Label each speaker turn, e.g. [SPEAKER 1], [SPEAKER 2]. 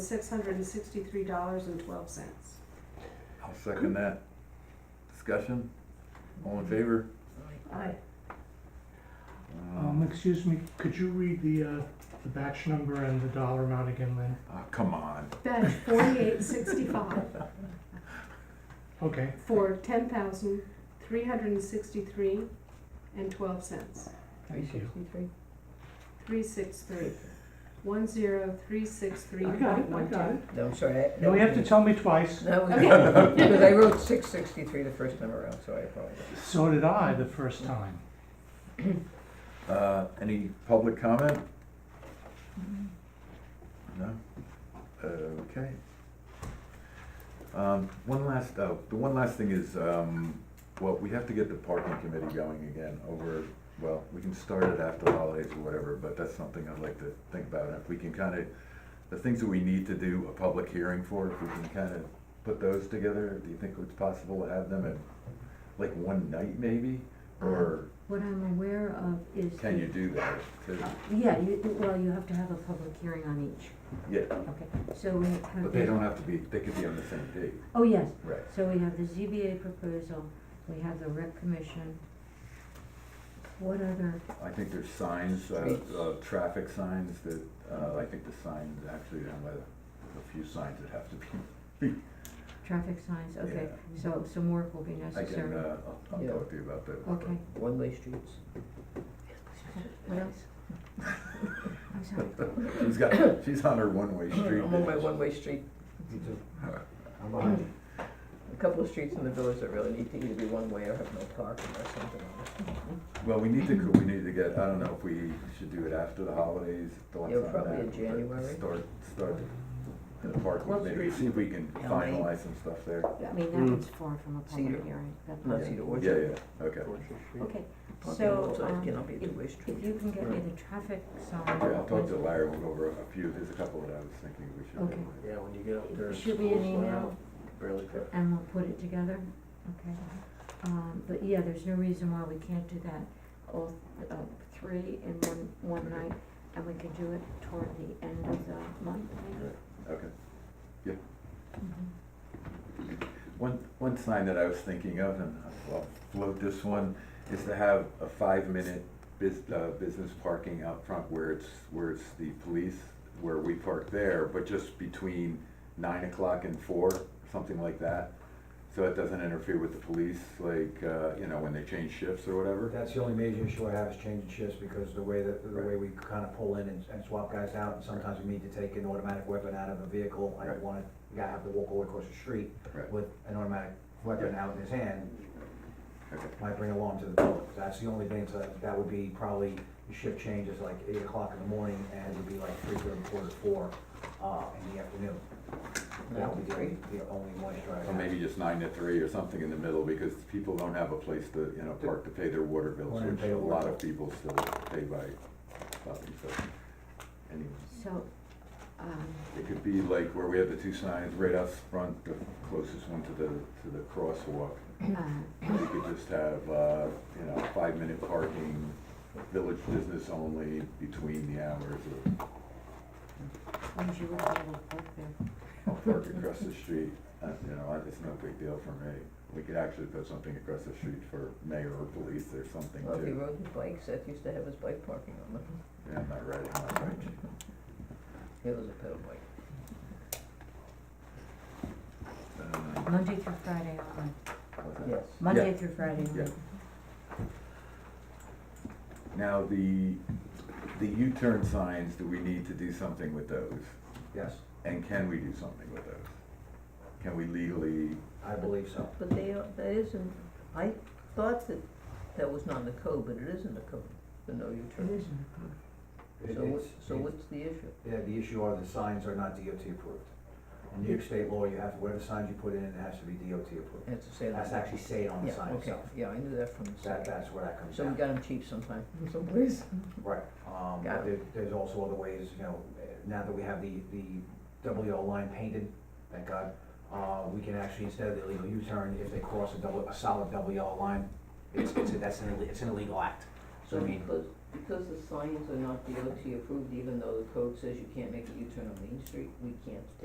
[SPEAKER 1] six hundred and sixty-three dollars and twelve cents.
[SPEAKER 2] I'll second that. Discussion? All in favor?
[SPEAKER 1] Aye.
[SPEAKER 3] Um, excuse me, could you read the, uh, the batch number and the dollar amount again, Lynn?
[SPEAKER 2] Oh, come on.
[SPEAKER 1] Batch forty-eight sixty-five
[SPEAKER 3] Okay,
[SPEAKER 1] for ten thousand three hundred and sixty-three and twelve cents.
[SPEAKER 3] thank you.
[SPEAKER 1] Three six three, one zero three six three
[SPEAKER 3] I got it,
[SPEAKER 1] point
[SPEAKER 3] I
[SPEAKER 1] one
[SPEAKER 3] got it.
[SPEAKER 1] two.
[SPEAKER 4] No, I'm sorry. I-
[SPEAKER 3] You only have to tell me twice.
[SPEAKER 4] No, we-
[SPEAKER 1] Okay.
[SPEAKER 4] because I wrote six sixty-three the first time around, so I apologize.
[SPEAKER 3] So did I the first time.
[SPEAKER 2] Uh, any public comment? No? Okay. Um, one last, uh, the one last thing is, um, well, we have to get the parking committee going again over, well, we can start it after the holidays or whatever, but that's something I'd like to think about. If we can kind of, the things that we need to do a public hearing for, if we can kind of put those together, do you think it's possible to have them at like one night maybe? Or
[SPEAKER 5] What I'm aware of is. uh,
[SPEAKER 2] can you do that? 'Cause-
[SPEAKER 5] Yeah, you, well, you have to have a public hearing on each,
[SPEAKER 2] Yeah,
[SPEAKER 5] okay, so we have.
[SPEAKER 2] but they don't have to be, they could be on the same date.
[SPEAKER 5] Oh, yes,
[SPEAKER 2] Right.
[SPEAKER 5] so we have the ZBA proposal, we have the rec commission. What other,
[SPEAKER 2] I think there's signs, uh,
[SPEAKER 4] Streets.
[SPEAKER 2] uh, traffic signs that, uh, I think the signs actually, down by the, a few signs that have to be.
[SPEAKER 5] traffic signs, okay,
[SPEAKER 4] Yeah.
[SPEAKER 5] so some work will be
[SPEAKER 2] I can,
[SPEAKER 5] necessary.
[SPEAKER 2] uh, I'll, I'll
[SPEAKER 4] Yeah.
[SPEAKER 2] talk to you about that.
[SPEAKER 5] Okay,
[SPEAKER 4] One-way streets.
[SPEAKER 2] uh,
[SPEAKER 5] what else? I'm sorry,
[SPEAKER 2] She's got, she's on her one-way street.
[SPEAKER 4] I'm on my one-way street.
[SPEAKER 6] I'm on it.
[SPEAKER 4] A couple of streets in the village that really need to either be one-way or have no parking or something on it.
[SPEAKER 2] Well, we need to, go- we need to get, I don't know if we should do it after the holidays, thoughts
[SPEAKER 4] Yeah,
[SPEAKER 2] on that.
[SPEAKER 4] probably in
[SPEAKER 2] but
[SPEAKER 4] January.
[SPEAKER 2] Start, start in the park,
[SPEAKER 5] Well,
[SPEAKER 2] maybe see if we can
[SPEAKER 4] Yeah.
[SPEAKER 2] finalize some stuff there.
[SPEAKER 5] I mean,
[SPEAKER 2] Hmm.
[SPEAKER 5] that
[SPEAKER 3] Mm.
[SPEAKER 5] one's far from a
[SPEAKER 4] Cedar.
[SPEAKER 5] public hearing, that
[SPEAKER 4] Not
[SPEAKER 5] part.
[SPEAKER 4] Cedar
[SPEAKER 2] Yeah,
[SPEAKER 4] Orchard.
[SPEAKER 2] yeah, okay.
[SPEAKER 5] Okay,
[SPEAKER 4] Parking
[SPEAKER 5] so,
[SPEAKER 4] lots, uh,
[SPEAKER 5] um,
[SPEAKER 4] cannot be a
[SPEAKER 5] if,
[SPEAKER 4] two-way
[SPEAKER 5] if
[SPEAKER 4] street.
[SPEAKER 5] you can get me the traffic sign.
[SPEAKER 2] Yeah, I'll talk to Larry, we'll go over a few, there's a couple that I was thinking we should.
[SPEAKER 5] Okay.
[SPEAKER 2] do.
[SPEAKER 6] Yeah, when you get up there.
[SPEAKER 5] Shoot me an email.
[SPEAKER 6] Barely fit.
[SPEAKER 5] and we'll put it together, okay? Um, but yeah, there's no reason why we can't do that, all, uh, three in one, one night, and we can do it toward the end of the month, maybe?
[SPEAKER 2] Okay, yeah. One, one sign that I was thinking of, and I'll float this one, is to have a five-minute bus uh, business parking out front where it's, where it's the police, where we park there, but just between nine o'clock and four, something like that. So it doesn't interfere with the police, like, uh, you know, when they change shifts or whatever.
[SPEAKER 6] That's the only major issue I have is changing shifts because the way that, the way we kind of pull in and and swap guys out and sometimes we need to take an automatic weapon out of a vehicle. I
[SPEAKER 2] Right.
[SPEAKER 6] don't want it, you gotta have to walk all the way across the street
[SPEAKER 2] Right.
[SPEAKER 6] with an automatic weapon out in his hand.
[SPEAKER 2] Okay.
[SPEAKER 6] Might bring alarm to the public. That's the only thing, so that would be probably, the shift changes like eight o'clock in the morning and it would be like three thirty, quarter to four, uh, in the afternoon. That would be the only, the only moisture I have.
[SPEAKER 2] Or maybe just nine to three or something in the middle, because people don't have a place to, you know, park to pay their water bills,
[SPEAKER 6] Water and
[SPEAKER 2] which
[SPEAKER 6] pay
[SPEAKER 2] a lot
[SPEAKER 6] water.
[SPEAKER 2] of people still pay by stopping, so. Anyway,
[SPEAKER 5] So, um,
[SPEAKER 2] it could be like where we have the two signs right out front, the closest one to the, to the crosswalk.
[SPEAKER 5] uh,
[SPEAKER 2] We could just have, uh, you know, five-minute parking, village business only between the hours of,
[SPEAKER 5] when you would be able to work there,
[SPEAKER 2] I'll park across the street. Uh, you know, I- it's no big deal for me. We could actually put something across the street for mayor or police or something
[SPEAKER 4] Well, if he
[SPEAKER 2] too.
[SPEAKER 4] rode his bike, Seth used to have his bike parking on them.
[SPEAKER 2] Yeah, I'm not riding my bike.
[SPEAKER 4] It was a pedal bike.
[SPEAKER 2] Uh,
[SPEAKER 5] Monday through Friday, only.
[SPEAKER 2] what's that?
[SPEAKER 4] Yes.
[SPEAKER 5] Monday through Friday.
[SPEAKER 2] Yeah.
[SPEAKER 5] only.
[SPEAKER 2] Now, the, the U-turn signs, do we need to do something with those?
[SPEAKER 6] Yes,
[SPEAKER 2] And can we do something with those? Can we legally,
[SPEAKER 6] I believe so.
[SPEAKER 4] But they, are- that isn't, I thought that that was not in the code, but it is in the code, the no
[SPEAKER 5] It
[SPEAKER 4] U-turn.
[SPEAKER 5] is in the code.
[SPEAKER 6] It-
[SPEAKER 4] So what's,
[SPEAKER 6] it's-
[SPEAKER 4] so
[SPEAKER 6] it-
[SPEAKER 4] what's the issue?
[SPEAKER 6] Yeah, the issue are the signs are not DOT approved. In New York State law, you have, whatever signs you put in, it has to be DOT approved.
[SPEAKER 4] It has to say
[SPEAKER 6] It
[SPEAKER 4] on the
[SPEAKER 6] has to actually say it on the
[SPEAKER 4] Yeah,
[SPEAKER 6] sign
[SPEAKER 4] okay,
[SPEAKER 6] itself.
[SPEAKER 4] yeah, I knew that from the
[SPEAKER 6] That,
[SPEAKER 4] site.
[SPEAKER 6] that's where that comes
[SPEAKER 4] So we
[SPEAKER 6] down.
[SPEAKER 4] got them cheap sometime, from someplace.
[SPEAKER 6] Right, um,
[SPEAKER 4] Got
[SPEAKER 6] but there, there's also other ways, you know, eh, now that we have the, the double yellow line painted, thank God, uh, we can actually, instead of the illegal U-turn, if they cross a double, a solid double yellow line, it's, it's, a- that's an, ille- it's an illegal act. So I mean,
[SPEAKER 4] close, Because the signs are not DOT approved, even though the code says you can't make a U-turn on Main Street, we can't